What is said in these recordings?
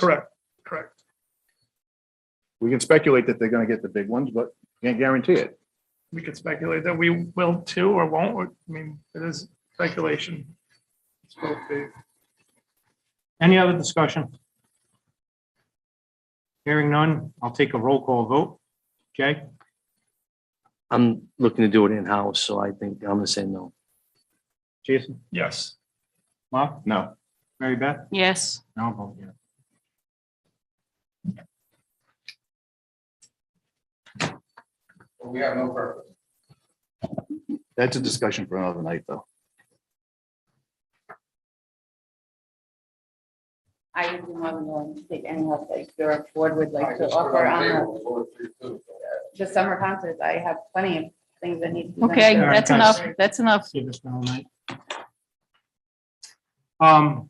Correct, correct. We can speculate that they're gonna get the big ones, but can't guarantee it. We could speculate that we will too or won't. or- I mean, it is speculation. It's both the- Any other discussion? Hearing none, I'll take a roll call vote. Jay? I'm looking to do it in-house, so I think I'm gonna say no. Jason? Yes, Mark? No, Mary Beth? Yes, And I'll vote yes. We have no purpose. that's a discussion for another night, though. I would be more than willing to take any help that your board would I like to just put offer on the on table for three, two. the the summer concerts. I have plenty of things that need to be. done. okay, right, that's thanks. enough, that's enough. See this all night. Um,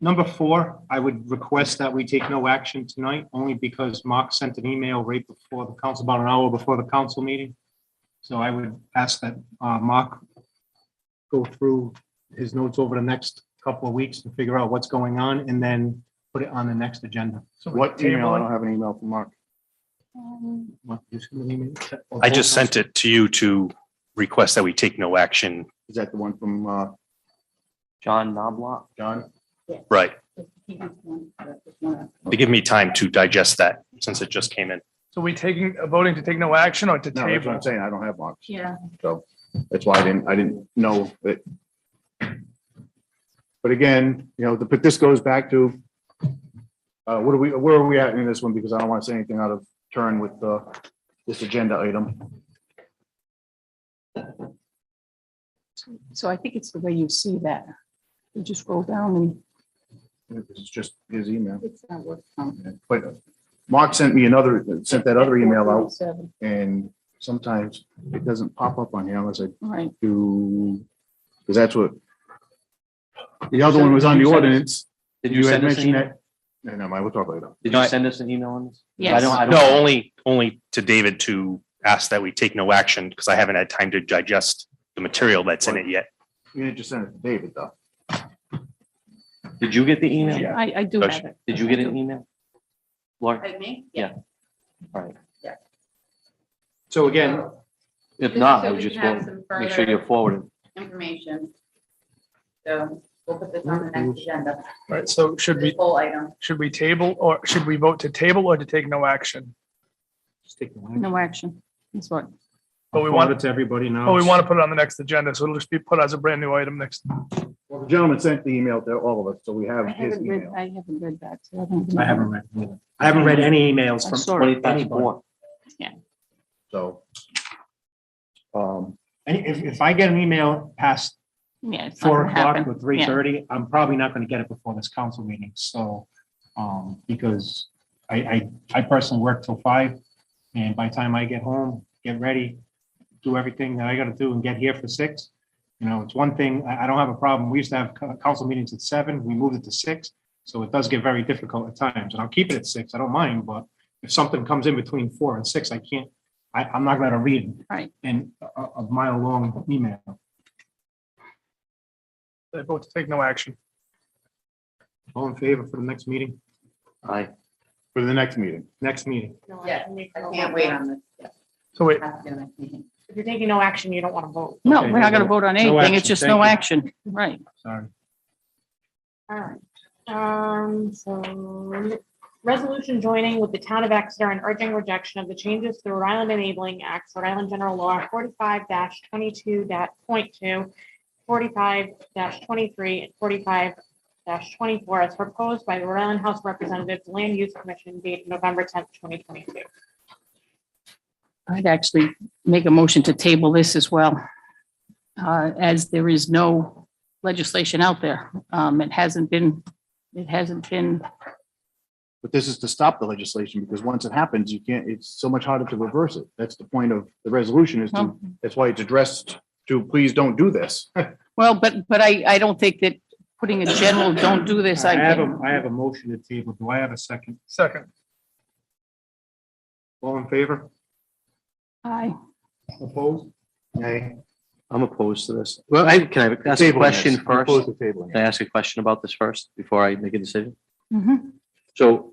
number four, I would request that we take no action tonight, only because Mark sent an email right before the council, about an hour before the council meeting. So I would ask that, uh, Mark go through his notes over the next couple of weeks and figure out what's going on and then put it on the next agenda. so we What email? table I don't it. have an email from Mark. What, just give me a minute. I just sent it to you to request that we take no action. Is that the one from, uh, John Knobloch? John? Right. Just keep it one, but just one. To give me time to digest that since it just came in. So we taking, uh, voting to take no action or to No, that's what table? I'm saying. I don't have Mark's. Yeah. So that's why I didn't, I didn't know that. But again, you know, the- but this goes back to, uh, what are we, where are we at in this one? Because I don't want to say anything out of turn with, uh, this agenda item. So I think it's the way you see that. You just roll down and It's just his email. It's not worth it. But Mark sent me another, sent that other email out 447, and sometimes it doesn't pop up on here unless I Right, do, because that's what. The other one was on the ordinance. Did had you send us an mentioned email? that. No, no, we'll talk later. Did No, you I- send us an email on this? Yes. I don't, I don't. No, only, only to David to ask that we take no action because I haven't had time to digest the material that's in it yet. You didn't just send it to David, though. Did you get the email? Yeah. I, I do have it. Did you get an email? Laura, Like me? So again, if not, I So would we just can have want- some make sure you're further forwarded. Information. So we'll put this on the next agenda, Right, so should this we, whole item. should we table or should we vote to table or to take no action? just take the line. No action. That's what, But we I'll want- forward it To everybody now. Oh, we want to put it on the next agenda, so it'll just be put as a brand new item next. Well, the gentleman sent the email to all of us, so we have I his haven't read, email. I haven't read that. so I don't I haven't read, it. I haven't read any emails I'm from. sorry. anybody. Twenty-four. So. Um, Any- If, if I get an email past Yeah. it's not four gonna o'clock happen. or Yeah. three thirty, I'm probably not gonna get it before this council meeting, so, um, because I, I, I personally work till five, and by the time I get home, get ready, do everything that I gotta do and get here for six, you know, it's one thing, I, I don't have a problem, we used to have co- council meetings at seven, we moved it to six, so it does get very difficult at times, and I'll keep it at six, I don't mind, but if something comes in between four and six, I can't, I, I'm not gonna read Right. an, a, a mile-long email. They uh, vote to take no action. All in favor for the next meeting? Aye. for the next meeting. next meeting. Yeah, I can't wait on this. Yeah, So wait, have to do the next meeting. If you're taking no action, you don't want to vote. No, Okay, we're not gonna no- vote on no anything. action, It's just thank no you. action. Right. Sorry. All right. Um, so resolution joining with the town of Exeter and urging rejection of the changes to the Rhode Island Enabling Act, Rhode Island General Law forty-five twenty-two dot point two, forty-five twenty-three, and forty-five twenty-four as proposed by the Rhode Island House of Representatives Land Use Commission dated November tenth, twenty twenty-two. I'd actually make a motion to table this as well, uh, as there is no legislation out there. Um, It hasn't been, it hasn't been, But this is to stop the legislation because once it happens, you can't, it's so much harder to reverse it. That's the point of the resolution is to, well, that's why it's addressed to, please don't do this. well, but, but I, I don't think that putting a general, don't do this, I have I, a, I have a motion to table. Do I have a second? second. All in favor? I, Opposed? Okay. I'm opposed to this. Well, I, can I ask a question Close first? the table. Can I ask a question about this first before I make a decision? Mhm. So